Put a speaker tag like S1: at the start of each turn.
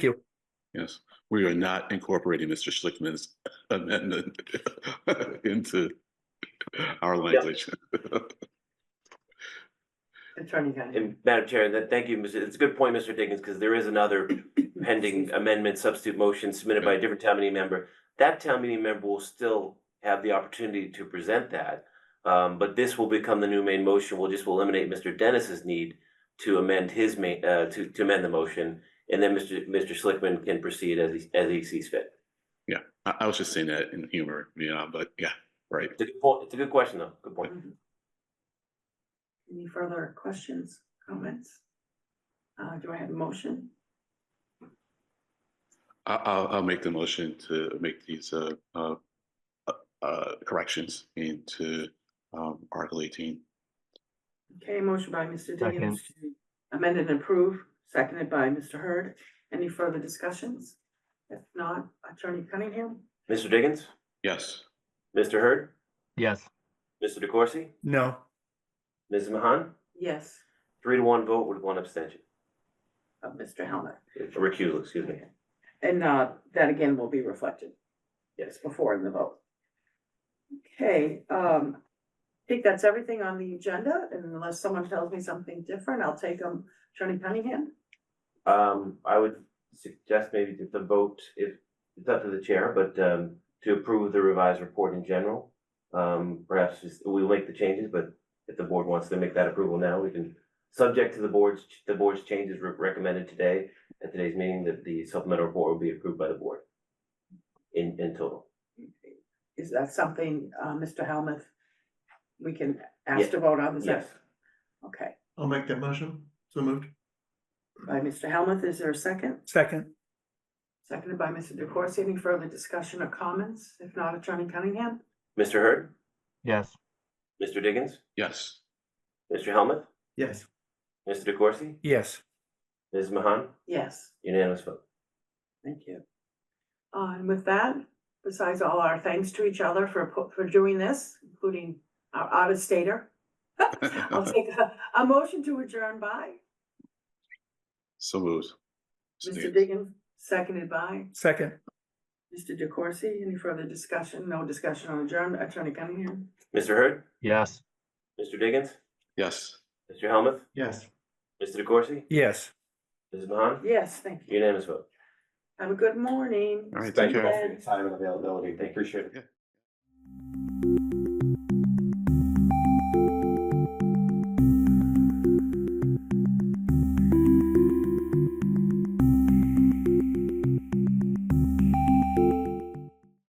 S1: Yes, we are not incorporating Mr. Schlickman's amendment into our language.
S2: Attorney Gunn.
S3: And Madam Chair, that, thank you, Mr. It's a good point, Mr. Diggins, because there is another pending amendment substitute motion submitted by a different town meeting member. That town meeting member will still have the opportunity to present that. Um, but this will become the new main motion. We'll just, will eliminate Mr. Dennis's need to amend his ma- uh, to, to amend the motion. And then Mr. Mr. Schlickman can proceed as he, as he sees fit.
S1: I, I was just saying that in humor, you know, but yeah, right.
S3: It's a good point. It's a good question, though. Good point.
S2: Any further questions, comments? Uh, do I have a motion?
S1: I, I'll, I'll make the motion to make these, uh, uh, uh, corrections into, um, Article eighteen.
S2: Okay, motion by Mr.
S4: Second.
S2: Diggins to amend and approve, seconded by Mr. Hurd. Any further discussions? If not, Attorney Cunningham?
S3: Mr. Diggins,
S1: Yes,
S3: Mr. Hurd,
S4: Yes,
S3: Mr. DeCoursey,
S5: No,
S3: Mrs. Mahan,
S2: Yes, Uh,
S3: three to one vote with one abstention.
S2: of Mr. Helmut.
S3: Recusal, excuse me.
S2: And, uh, that again will be reflected
S3: Yes.
S2: before in the vote. Okay, um, I think that's everything on the agenda, and unless someone tells me something different, I'll take them. Attorney Cunningham?
S3: Um, I would suggest maybe that the vote, if, it's up to the chair, but, um, to approve the revised report in general. Um, perhaps just, we'll make the changes, but if the board wants to make that approval now, we can, subject to the board's, the board's changes re- recommended today at today's meeting, that the supplemental report will be approved by the board in, in total.
S2: Is that something, uh, Mr. Helmuth, we can ask to vote on? Is that-
S3: Yes,
S2: Okay,
S5: I'll make that motion. So moved.
S2: by Mr. Helmuth, is there a second?
S5: Second.
S2: Seconded by Mr. DeCoursey. Any further discussion or comments? If not, Attorney Cunningham?
S3: Mr. Hurd,
S4: yes,
S3: Mr. Diggins,
S1: yes,
S3: Mr. Helmuth,
S5: Yes.
S3: Mr. DeCoursey,
S5: Yes.
S3: Ms. Mahan,
S2: Yes,
S3: unanimous vote.
S2: thank you. Uh, and with that, besides all our thanks to each other for, pu- for doing this, including our out-of-stater, I'll take a, a motion to adjourn by
S1: so moved.
S2: Mr. Diggins, seconded by
S5: Second.
S2: Mr. DeCoursey. Any further discussion? No discussion on adjournment. Attorney Cunningham?
S3: Mr. Hurd,
S4: yes.
S3: Mr. Diggins,
S1: Yes.
S3: Mr. Helmuth,
S5: Yes.
S3: Mr. DeCoursey,
S5: Yes.
S3: Ms. Mahan,
S2: Yes, thank you.
S3: Unanimous vote.
S2: Have a good morning.
S1: All right,
S2: Stay
S1: thank you.
S2: blessed.
S6: Time and availability. They appreciate it.